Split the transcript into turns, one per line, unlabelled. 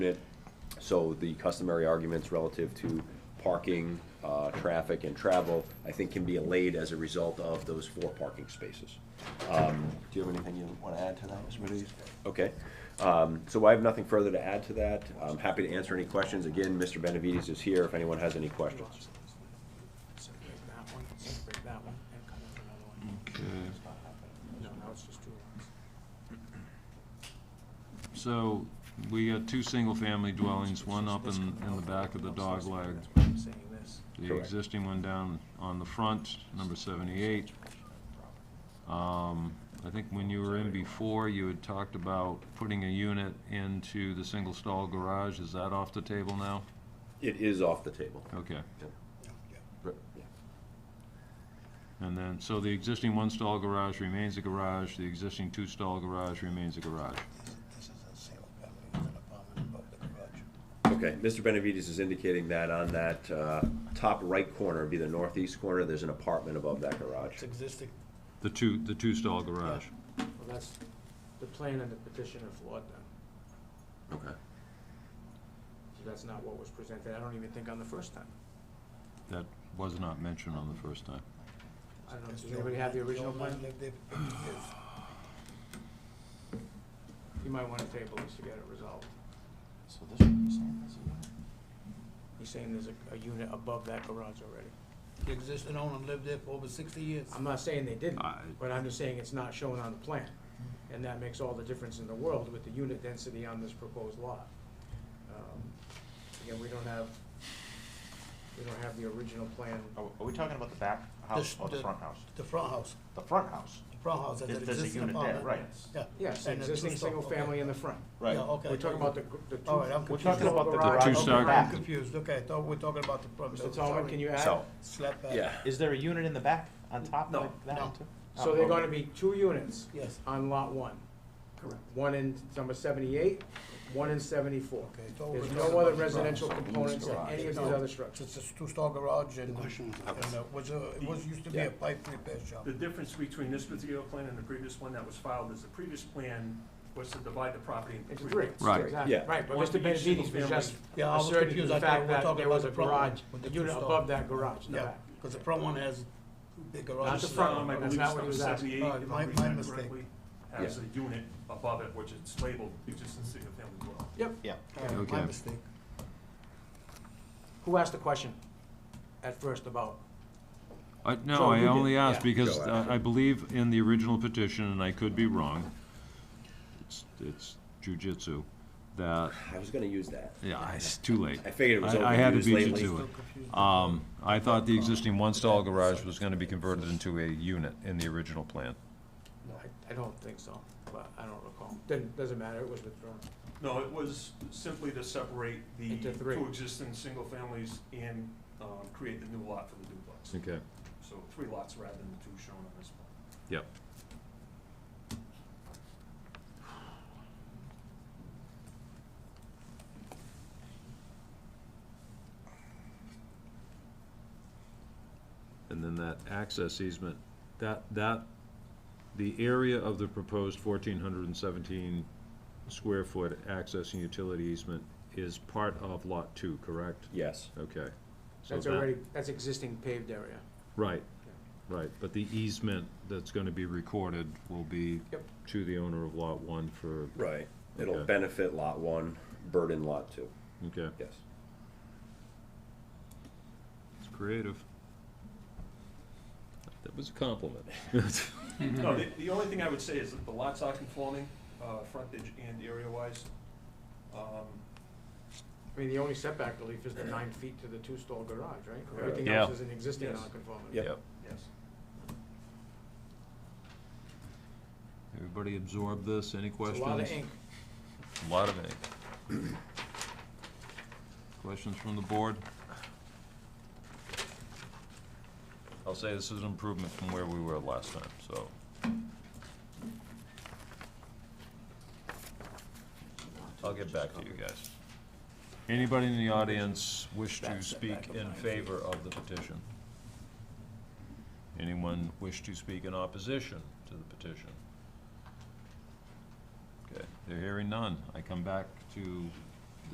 unit. So the customary arguments relative to parking, uh, traffic, and travel, I think can be allayed as a result of those four parking spaces. Um, Do you have anything you want to add to that, Mr. Mediz? Okay, Um, so I have nothing further to add to that. I'm happy to answer any questions. Again, Mr. Benavides is here if anyone has any questions.
Separate that one, separate that one, and cut out another one. No, now it's just two lines.
So we got two single-family dwellings, one up in, in the back of the dog leg,
That's why I'm saying this.
the
Correct.
existing one down on the front, number seventy-eight. Um, I think when you were in before, you had talked about putting a unit into the single-stall garage. Is that off the table now?
It is off the table.
Okay.
Right, yeah.
And then, so the existing one-stall garage remains a garage, the existing two-stall garage remains a garage.
This is a single family with an apartment above the garage.
Okay, Mr. Benavides is indicating that on that uh, top right corner, be the northeast corner, there's an apartment above that garage.
It's existing,
The two, the two-stall garage.
well, that's the plan and the petition of flawed then.
Okay.
So that's not what was presented, I don't even think on the first time.
That was not mentioned on the first time.
I don't know,
Does
does anybody have the
Joe-
original
Joe
plan?
Mann live there? Yes.
You might wanna table this to get it resolved.
So this one, you're saying this is.
He's saying there's a, a unit above that garage already.
The existing owner lived there for over sixty years.
I'm not saying they didn't,
I-
but I'm just saying it's not shown on the plan.
Hmm.
And that makes all the difference in the world with the unit density on this proposed lot. Um, Again, we don't have, we don't have the original plan.
Are, are we talking about the back house
This-
or the front house?
The front house,
The front house.
the front house, that's
There-
an
there's a
existing
unit there,
apartment.
right.
Yeah.
Yes,
And a
existing
two-stall,
single
okay.
family in the front.
Right.
Yeah, okay.
We're talking about the, gr- the two.
All right, I'm
the
confused.
We're talking about the
two-stall
garage
Two
on
garage.
the
side.
I'm
back.
confused, okay, I thought we were talking about the front.
Mr. Tallman, can you add?
So,
Slap back.
yeah.
Is there a unit in the back on top
No.
like that
No.
too?
So
Oh,
they're
okay.
gonna be two units
Yes,
on lot one.
correct.
One in number seventhought one in seventy-four.
Okay. it's all
There's
we're
no
talking
other
about is the front.
residential components in any of these other structures.
It's a two-stall garage and, and
question is-
uh, was a, it was, used to be
Yeah.
a pipe repair shop.
The difference between this particular plan and the previous one that was filed is the previous plan was to divide the property
It's
into
three.
three. lots.
Right.
Exactly.
Yeah.
Right, but
One
Mr.
for each
Benavides was
single
just
Yeah, I was
asserting
confused.
the
I
fact
thought we were
that
talking
there
about
was a
the front
garage,
with
a
the
unit
two-stall.
above that garage in the
Yeah,
back.
because the front one has big garage.
Not the
This
front
one, I
one,
believe
that's not
it's
what he was
number
asking. Uh,
78, if
Alright,
I'm
my-
reading
my
that
mistake.
correctly, Has a unit above it, which it's labeled existing single family dwelling.
Yep.
Yeah.
All right, My
Okay.
mistake.
Who asked the question at first about,
I,
So
no, I
you did-
only asked
yeah.
because
Go
uh,
ahead.
I believe in the original petition, and I could be wrong, it's, it's jujitsu, that,
I was gonna use that.
yeah, it's too late.
I figured it was
I- I had to
overused
beat you
lately.
to it. Um, I thought the existing one-stall garage was gonna be converted into a unit in the original plan.
I- I don't think so, but I don't recall. Didn't, doesn't matter, it was withdrawn.
No, it was simply to separate the
Into three.
two existing single families and, um, create the new lot for the duplex.
Okay.
So three lots rather than the two shown on this plan.
Yep. And then that access easement, that, that, the area of the proposed fourteen hundred and seventeen square foot access and utility easement is part of lot two, correct?
Yes,
Okay. So
That's
that-
already, that's existing paved area.
Right, right, but the easement that's gonna be recorded will be
Yep.
to the owner of lot one for,
right. It'll
Okay.
benefit lot one, burden lot two,
okay,
yes.
it's creative. That was a compliment.
No, the, the only thing I would say is that the lots are conforming, uh, frontage and area wise. Um,
I mean, the only setback relief is the nine feet to the two-stall garage, right?
Correct.
Everything
Yeah.
else is an existing
Yes.
nonconformity.
Yep.
yes.
Everybody absorb this, any
It's a
questions?
lot of ink.
A Lot of ink. Questions from the board? I'll say this is an improvement from where we were last time, so. I'll get back to you guys. Anybody in the audience wish to speak in favor of the petition? Anyone wish to speak in opposition to the petition? Okay, they're hearing none. I come back to